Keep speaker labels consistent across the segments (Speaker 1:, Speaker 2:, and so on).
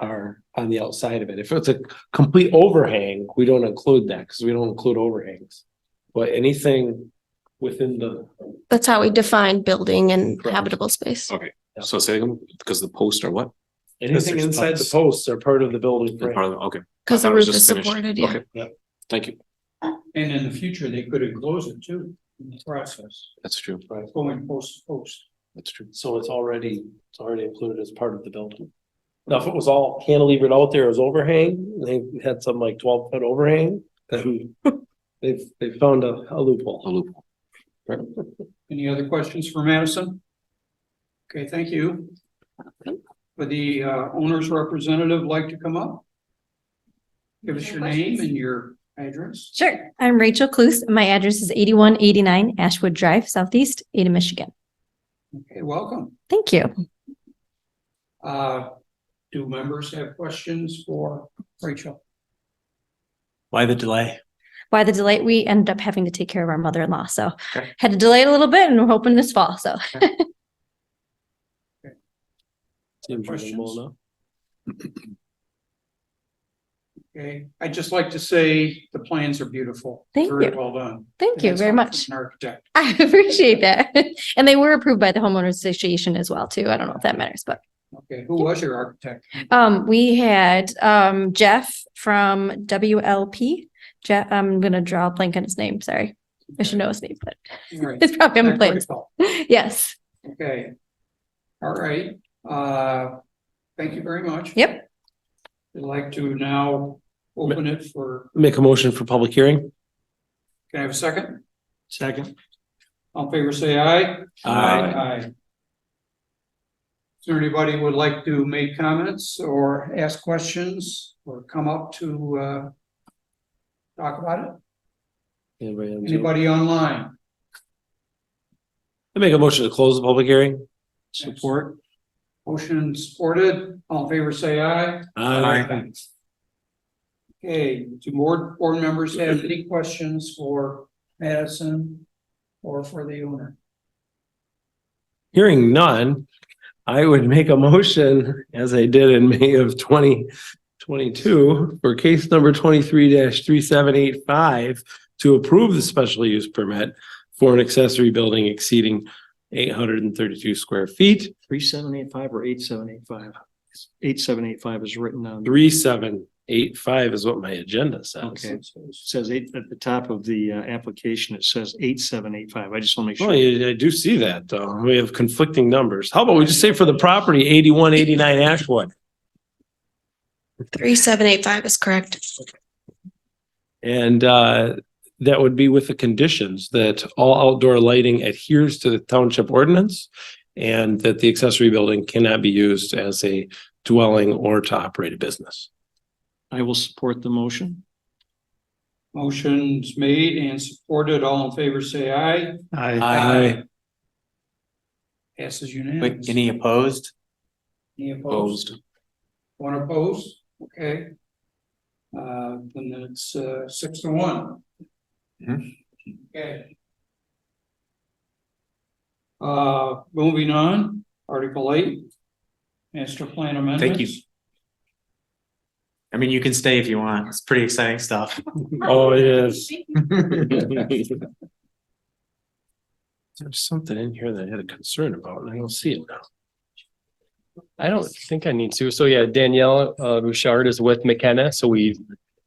Speaker 1: are on the outside of it. If it's a complete overhang, we don't include that because we don't include overhangs. But anything within the,
Speaker 2: That's how we define building and
Speaker 1: Correct.
Speaker 2: habitable space.
Speaker 3: Okay, so say them, because the posts are what?
Speaker 1: anything
Speaker 3: there's
Speaker 1: inside the
Speaker 3: posts.
Speaker 1: posts are part of the building
Speaker 3: They're part
Speaker 1: frame.
Speaker 3: of the- Okay.
Speaker 2: Because
Speaker 3: I
Speaker 2: the
Speaker 3: was
Speaker 2: roof
Speaker 3: just
Speaker 2: is
Speaker 3: finished.
Speaker 2: supported, yeah.
Speaker 3: Okay. Thank you.
Speaker 4: And in the future, they could enclose it too, in the process,
Speaker 3: That's true.
Speaker 1: Right.
Speaker 4: going post to post.
Speaker 3: That's true.
Speaker 1: So it's already, it's already included as part of the building. Now, if it was all cantilevered out there as overhang, they had some like twelve foot overhang, then they've, they've found a a
Speaker 3: A
Speaker 1: loophole.
Speaker 3: loophole.
Speaker 4: Any other questions for Madison? Okay, thank you. Would the uh, owner's representative like to come up? Give us your name and your address.
Speaker 5: Sure. I'm Rachel Cluse. and My address is eighty-one eighty-nine Ashwood Drive, Southeast, Ada, Michigan.
Speaker 4: Okay, welcome.
Speaker 5: Thank you.
Speaker 4: Uh, do members have questions for Rachel?
Speaker 6: Why the delay?
Speaker 5: Why the delay? We ended up having to take care of our mother-in-law, so
Speaker 3: Okay.
Speaker 5: had to delay it a little bit and we're hoping this fall, so.
Speaker 1: Seems
Speaker 4: Questions?
Speaker 1: reasonable enough.
Speaker 4: Okay, I'd just like to say the plans are beautiful.
Speaker 5: Thank
Speaker 4: Very
Speaker 5: you.
Speaker 4: well done.
Speaker 5: Thank you
Speaker 4: And that's
Speaker 5: very
Speaker 4: all
Speaker 5: much.
Speaker 4: from An architect.
Speaker 5: I appreciate that. And they were approved by the homeowners association as well, too. I don't know if that matters, but
Speaker 4: Okay, who was your architect?
Speaker 5: Um, we had, um, Jeff from WLP. Jeff, I'm gonna draw a blank on his name, sorry. I should know his name, but
Speaker 4: All right.
Speaker 5: it's probably on the
Speaker 4: Not
Speaker 5: plans.
Speaker 4: critical.
Speaker 5: Yes.
Speaker 4: Okay. All right, uh, thank you very much.
Speaker 5: Yep.
Speaker 4: I'd like to now open it for,
Speaker 1: Make a motion for public hearing?
Speaker 4: can I have a second?
Speaker 6: Second.
Speaker 4: All in favor, say aye.
Speaker 1: Aye.
Speaker 4: Aye. Is there anybody who would like to make comments or ask questions or come up to, uh, talk about it?
Speaker 1: Anybody on Zoom?
Speaker 4: Anybody online?
Speaker 1: I make a motion to close the public hearing?
Speaker 4: Support. Motion supported, all in favor, say aye.
Speaker 1: Uh,
Speaker 4: Aye. Okay, do board, board members have any questions for Madison or for the owner?
Speaker 1: Hearing none, I would make a motion, as I did in May of twenty twenty-two, for case number twenty-three three seven eight five to approve the special use permit for an accessory building exceeding eight hundred and thirty-two square feet,
Speaker 6: Three seven eight five or eight seven eight five? Eight seven eight five is written on, it
Speaker 1: three seven eight five is what my agenda says.
Speaker 6: Okay. says eight, at the top of the uh, application, it says eight seven eight five. I just want to make
Speaker 1: Well,
Speaker 6: sure.
Speaker 1: I I do see that, though. We have conflicting numbers. How about we just say for the property eighty-one eighty-nine Ashwood?
Speaker 2: Three, seven, eight, five is correct.
Speaker 1: And uh, that would be with the conditions that all outdoor lighting adheres to the township ordinance and that the accessory building cannot be used as a dwelling or to operate a business.
Speaker 6: I will support the motion.
Speaker 4: Motion's made and supported, all in favor, say aye.
Speaker 1: Aye.
Speaker 4: Passes
Speaker 7: Wait,
Speaker 4: unanimously.
Speaker 7: any opposed?
Speaker 4: Any opposed?
Speaker 3: Opposed.
Speaker 4: One opposed, okay. Uh, then it's uh six to one.
Speaker 7: Mm-hmm.
Speaker 4: Okay. Uh, moving on, Article eight. Master plan amendments.
Speaker 7: you. I mean, you can stay if you want. It's pretty exciting stuff.
Speaker 1: Oh, it is. There's something in here that I had a concern about and I don't see it now.
Speaker 8: I don't think I need to. So yeah, Danielle uh, Bouchard is with McKenna. So we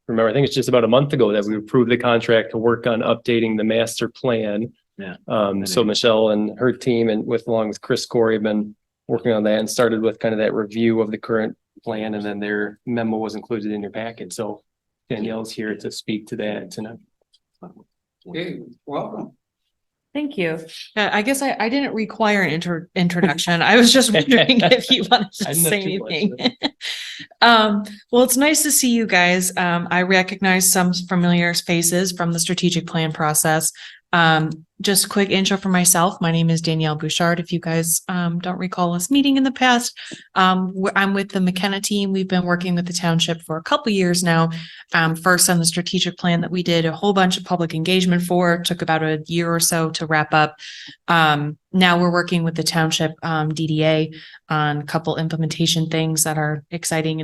Speaker 8: remember, I think it's just about a month ago that we approved the contract to work on updating the master plan.
Speaker 7: Yeah.
Speaker 8: Um, so Michelle and her team and with along with Chris Corey have been working on that and started with kind of that review of the current plan and then their memo was included in your packet. So Danielle's here to speak to that tonight.
Speaker 4: Okay, welcome.
Speaker 9: Thank you. Uh, I guess I, I didn't require an intro, introduction. I was just wondering if you wanted
Speaker 8: I
Speaker 9: to
Speaker 8: didn't have
Speaker 9: say
Speaker 8: two
Speaker 9: anything. Um, well, it's nice to see you guys. Um, I recognize some familiar faces from the strategic plan process. Um, just a quick intro for myself. My name is Danielle Bouchard. If you guys, um, don't recall us meeting in the past, um, wh- I'm with the McKenna team. We've been working with the township for a couple years now um, first on the strategic plan that we did a whole bunch of public engagement for, took about a year or so to wrap up. Um, now we're working with the township, um, DDA on a couple implementation things that are exciting and